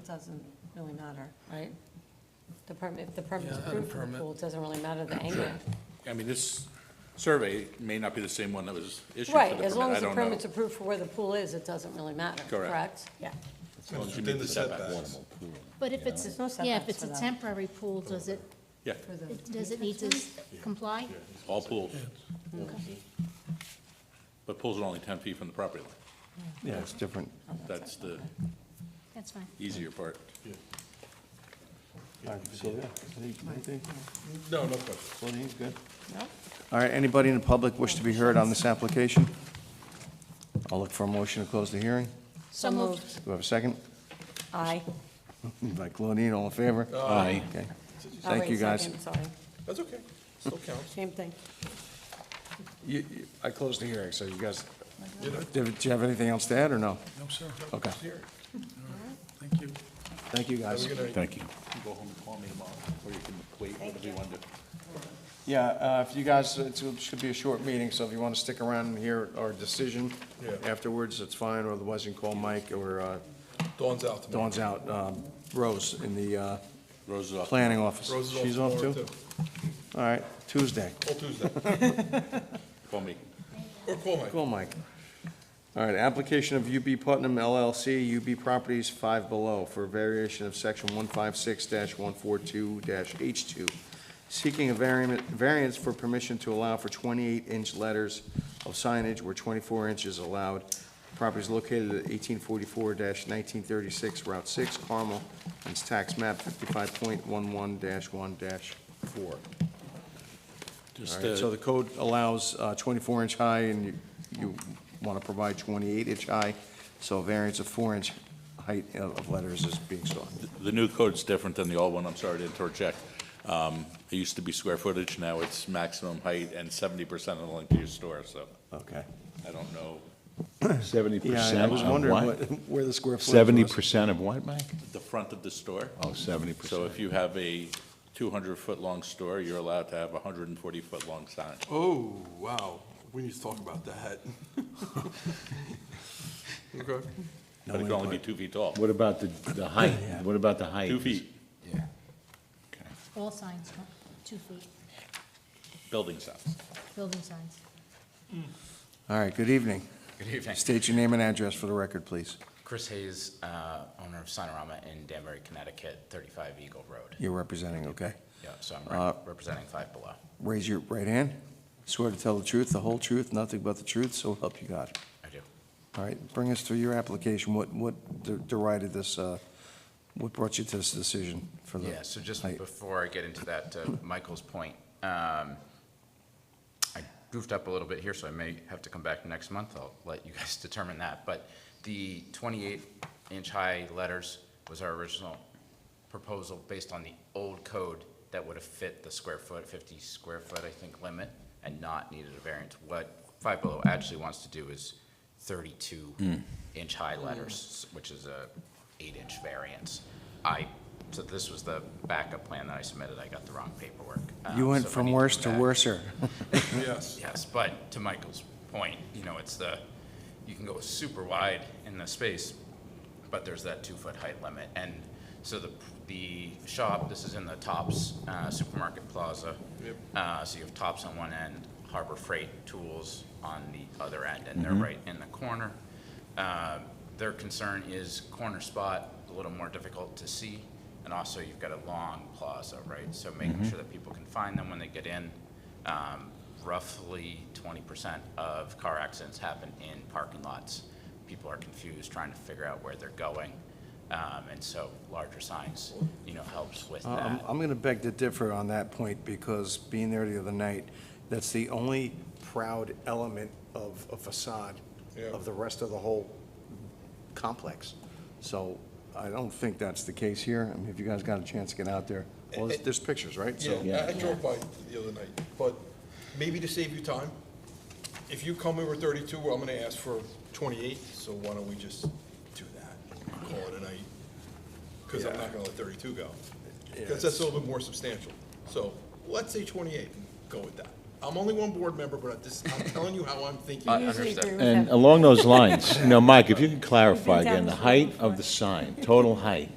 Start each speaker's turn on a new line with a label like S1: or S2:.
S1: doesn't really matter, right? The permit, if the permit's
S2: Yeah,
S1: approved for the
S2: permit.
S1: pool, it doesn't really matter the angle.
S3: I mean, this survey may not be the same one that was issued for the
S1: Right, as long
S3: permit, I
S1: as the
S3: don't know.
S1: permit's approved for where the pool is, it doesn't really matter,
S3: Correct.
S1: correct? Yeah.
S3: As long as you
S2: Within
S3: meet the
S2: the
S3: setbacks.
S2: setbacks.
S4: But if it's,
S1: There's no
S4: yeah,
S1: setbacks
S4: if it's
S1: for
S4: a
S1: that.
S4: temporary pool, does it,
S3: Yeah,
S1: For the-
S4: does it need to comply?
S3: all pools, but pools are only ten feet from the property line.
S5: Yeah, it's different.
S3: That's the
S4: That's fine.
S3: easier part.
S5: All right, so, yeah, I think- I think-
S2: No, no question.
S5: well, I think it's good.
S1: No?
S5: All right, anybody in the public wish to be heard on this application? I'll look for a motion to close the hearing.
S4: So moved.
S5: Do I have a second?
S1: Aye.
S5: By Claudine, all in favor?
S3: Aye.
S5: Okay.
S1: Oh,
S5: Thank
S1: wait,
S5: you, guys.
S1: second, Sorry,
S2: That's okay, still counts.
S1: same thing.
S5: You- you- I closed the hearing, so you guys, do do you have anything else to add, or no?
S2: No, sir.
S5: Okay.
S2: Here. Thank you.
S5: Thank you, guys.
S2: Have a good night.
S3: Thank you. Go home and call me tomorrow, or you can wait, whatever you want to.
S5: Yeah, uh, if you guys, it's- it should be a short meeting, so if you want to stick around and hear our decision
S2: Yeah.
S5: afterwards, that's fine, or otherwise you can call Mike or uh,
S2: Dawn's out tomorrow.
S5: Dawn's out, um, Rose in the uh,
S3: Rose is off.
S5: planning office.
S2: Rose is
S5: She's off
S2: tomorrow,
S5: too? All right, Tuesday.
S2: All Tuesday.
S3: Call me.
S2: Or call Mike.
S5: Cool, Mike. All right, application of UB Putnam LLC, UB Properties Five Below for a variation of section 156-142-H2, seeking a variant- variance for permission to allow for 28-inch letters of signage where 24 inches allowed. Property is located at 1844-1936 Route 6, Carmel, and it's tax map 55.11-1-4. All
S3: Just,
S5: right, so
S3: uh,
S5: the code allows 24-inch high, and you- you want to provide 28-inch high, so a variance of 4-inch height of of letters is being sought.
S3: the new code's different than the old one, I'm sorry, I didn't torque check. Um, It used to be square footage, now it's maximum height and seventy percent of the length of your store, so
S5: Okay.
S3: I don't know.
S6: Seventy
S5: Yeah, I
S6: percent
S5: was
S6: of
S5: wondering what-
S6: what?
S5: where the square footage was.
S6: Seventy percent of what, Mike?
S3: The front of the store?
S6: Oh, seventy
S3: So
S6: percent.
S3: if you have a 200-foot-long store, you're allowed to have a 140-foot-long sign.
S2: Oh, wow, we need to talk about that. Okay.
S3: But it can only be two feet tall.
S6: What about the, the height? What about the height?
S3: Two feet,
S6: Yeah.
S4: All signs, huh? two feet,
S3: building signs.
S4: building signs.
S5: All right, good evening.
S7: Good evening.
S5: State your name and address for the record, please.
S7: Chris Hayes, uh, owner of Sonorama in Danbury, Connecticut, 35 Eagle Road.
S5: You're representing, okay?
S7: Yeah, so I'm
S5: Uh,
S7: re- representing Five Below.
S5: Raise your right hand. Swear to tell the truth, the whole truth, nothing but the truth, so help you God.
S7: I do.
S5: All right, bring us through your application. What, what de- derided this, uh, what brought you to this decision for the?
S7: Yeah, so just
S5: height?
S7: before I get into that, uh, Michael's point, um, I goofed up a little bit here, so I may have to come back next month. I'll let you guys determine that. But the 28-inch-high letters was our original proposal based on the old code that would have fit the square foot, 50 square foot, I think, limit, and not needed a variance. What Five Below actually wants to do is 32-inch-high letters, which is a eight-inch variance. I, so this was the backup plan that I submitted. I got the wrong paperwork. Uh,
S5: You went
S7: so if I
S5: from
S7: need
S5: worse
S7: come
S5: to
S7: back-
S5: worser.
S2: Yes.
S7: Yes, but to Michael's point, you know, it's the, you can go super wide in the space, but there's that two-foot height limit. And so the, the shop, this is in the Tops uh, Supermarket Plaza.
S2: Yep.
S7: Uh, So you have Tops on one end, Harbor Freight Tools on the other end, and they're right in the corner. Uh, Their concern is corner spot, a little more difficult to see, and also you've got a long plaza, right? So making sure that people can find them when they get in. Um, Roughly twenty percent of car accidents happen in parking lots. People are confused, trying to figure out where they're going. Um, And so larger signs, you know, helps with
S5: Uh, I'm,
S7: that.
S5: I'm going to beg to differ on that point because being there the other night, that's the only proud element of a facade
S2: Yeah.
S5: of the rest of the whole complex. So I don't think that's the case here. I mean, if you guys got a chance to get out there, well, there's, there's pictures, right? So-
S2: Yeah, I- I drove by the other night, but maybe to save you time, if you come in with thirty-two, I'm gonna ask for twenty-eight, so why don't we just do that? Call it a night, because I'm not gonna let thirty-two go. Because that's a little bit more substantial. So let's say twenty-eight, and go with that. I'm only one board member, but this, I'm telling you how I'm thinking.
S7: I
S1: Usually
S7: understand.
S1: agree with
S6: And
S1: that.
S6: along those lines, you know, Mike, if you could clarify
S1: We've been down
S6: again, the
S1: this road
S6: height
S1: before.
S6: of the sign, total height,